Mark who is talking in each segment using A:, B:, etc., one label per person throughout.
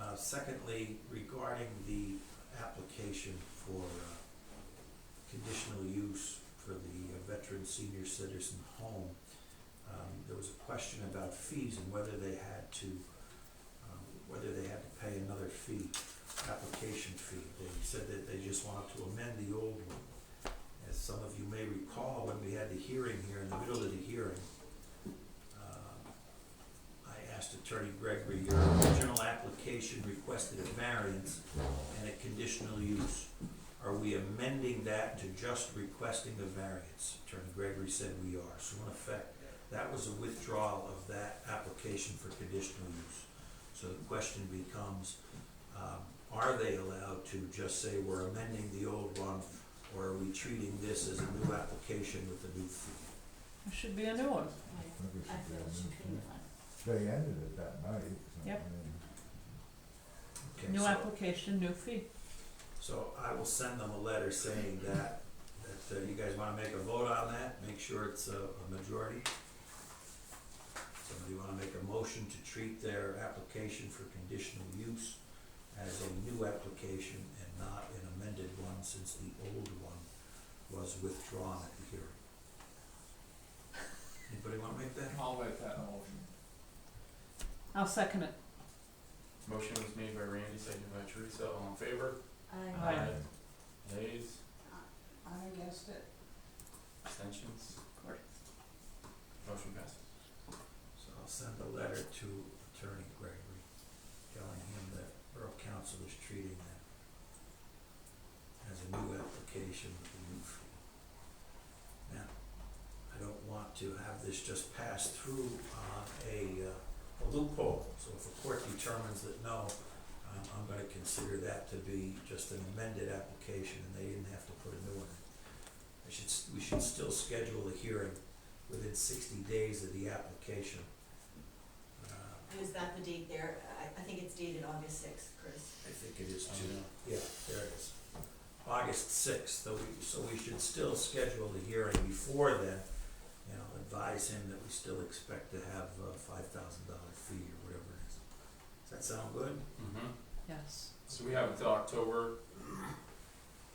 A: Uh, Secondly, regarding the application for uh, conditional use for the uh, veteran senior citizen home, um, there was a question about fees and whether they had to, um, whether they had to pay another fee, application fee. They said that they just wanted to amend the old one. As some of you may recall, when we had the hearing here, in the middle of the hearing, um, I asked Attorney Gregory, your original application requested a variance and a conditional use. Are we amending that to just requesting the variance? Attorney Gregory said we are. So in effect, that was a withdrawal of that application for conditional use. So the question becomes, um, are they allowed to just say we're amending the old one? Or are we treating this as a new application with a new fee?
B: There should be a new one.
C: I feel she couldn't find.
D: They ended it that night. so, I
B: Yep.
D: mean,
A: Okay,
B: New
A: so-
B: application, new fee.
A: So I will send them a letter saying that, that uh, you guys wanna make a vote on that, make sure it's a, a majority. Somebody wanna make a motion to treat their application for conditional use as a new application and not an amended one since the old one was withdrawn at the hearing. Anybody wanna make that?
E: I'll make that motion.
B: I'll second it.
E: Motion was made by Randy, seconded by Teresa, all in favor?
B: Aye.
C: I,
E: Nays,
B: I guessed it.
E: abstentions, motion passes.
A: So I'll send a letter to Attorney Gregory telling him that Borough Council is treating that as a new application with a new fee. Now, I don't want to have this just passed through on a uh, a loophole, so if a court determines that no, um, I'm gonna consider that to be just an amended application and they didn't have to put a new one in. I should, s- we should still schedule a hearing within sixty days of the application. Uh,
C: was that the date there? I, I think it's dated August sixth, Chris.
A: I think it is
E: I
A: two,
E: know.
A: yeah, there it is. August sixth, so we, so we should still schedule the hearing before then. You know, advise him that we still expect to have a five thousand dollar fee or whatever it is. Does that sound good?
E: Mm-hmm,
B: Yes.
E: so we have until October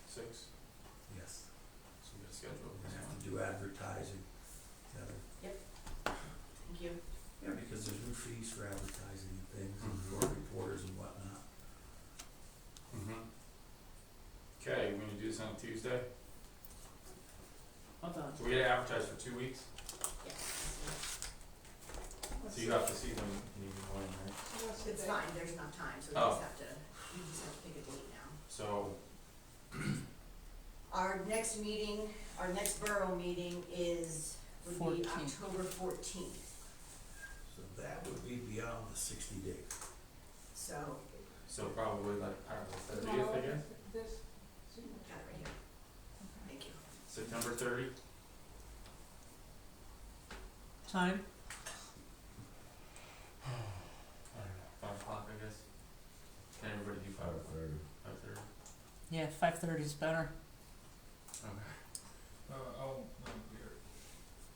E: sixth,
A: Yes.
E: so we gotta schedule
A: We're
E: this
A: gonna have
E: one.
A: to do advertising, uh,
C: Thank you.
A: Yeah, because there's new fees for advertising and things, and
E: Mhm.
A: for reporters and whatnot.
E: Mm-hmm. Okay, we're gonna do this on Tuesday,
B: Hold on.
E: so we gotta advertise for two weeks,
C: Yes.
E: so you have to see them in the morning, right?
C: It's fine, there's enough time, so we
E: Oh.
C: just have to, we just have to pick a date now.
E: So,
C: Our next meeting, our next borough meeting is, would be
B: 14th.
C: October fourteenth,
A: So that would be beyond the sixty days.
C: so,
E: so probably like, I don't know, thirtieth, I guess,
C: got it right here. Thank you.
E: September thirty,
B: Time?
E: I don't know, five o'clock, I guess. Can everybody do five
D: five
E: o'clock,
D: thirty.
E: five thirty?
B: Yeah, five thirty is better.
F: Uh, I'll, I'm here.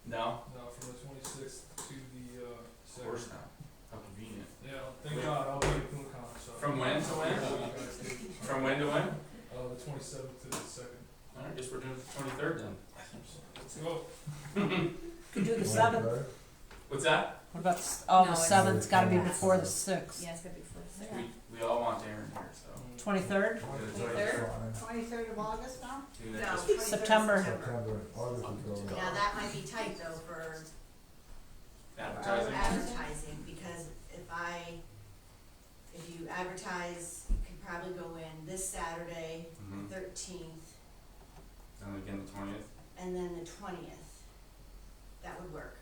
E: No,
F: No, from the twenty-sixth to the, uh,
E: of
F: second.
E: course not, how convenient.
F: Yeah, thank
E: Wait.
F: God, I'll be at FinCon, so.
E: From when to when? From when to when?
F: Uh, the twenty-seventh to the second.
E: Alright, guess we're doing the twenty-third then.
F: Let's go.
B: Could do the seventh.
E: What's that?
B: What about, s- oh,
C: No,
B: the
C: it's-
B: seventh's gotta be
C: Yeah.
B: before the sixth.
C: it's gonna be for
E: We, we all want Aaron here, so.
B: Twenty-third?
E: Twenty-third?
G: Twenty-third of August now?
E: Do
C: No,
E: that.
C: 23rd of
B: September.
D: September, August is over.
C: Yeah, that might be tight though for
E: Advertising.
C: advertising, because if I, if you advertise, you could probably go in this Saturday,
E: Mm-hmm,
C: thirteenth,
E: and again the twentieth.
C: and then the twentieth. That would work,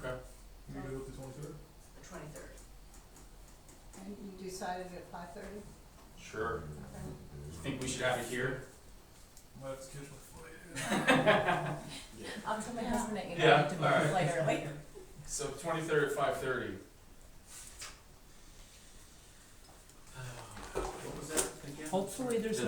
E: Okay.
F: You good with the twenty-third?
C: the twenty-third.
G: And you decided at five-thirty?
E: Sure. You think we should have it here?
F: Might have to catch my flight.
G: I'll tell my husband that you
E: Yeah,
G: need to
E: all right.
G: move later, later.
E: So twenty-third at five thirty. What was that again?
B: Hopefully there's
E: The-
B: no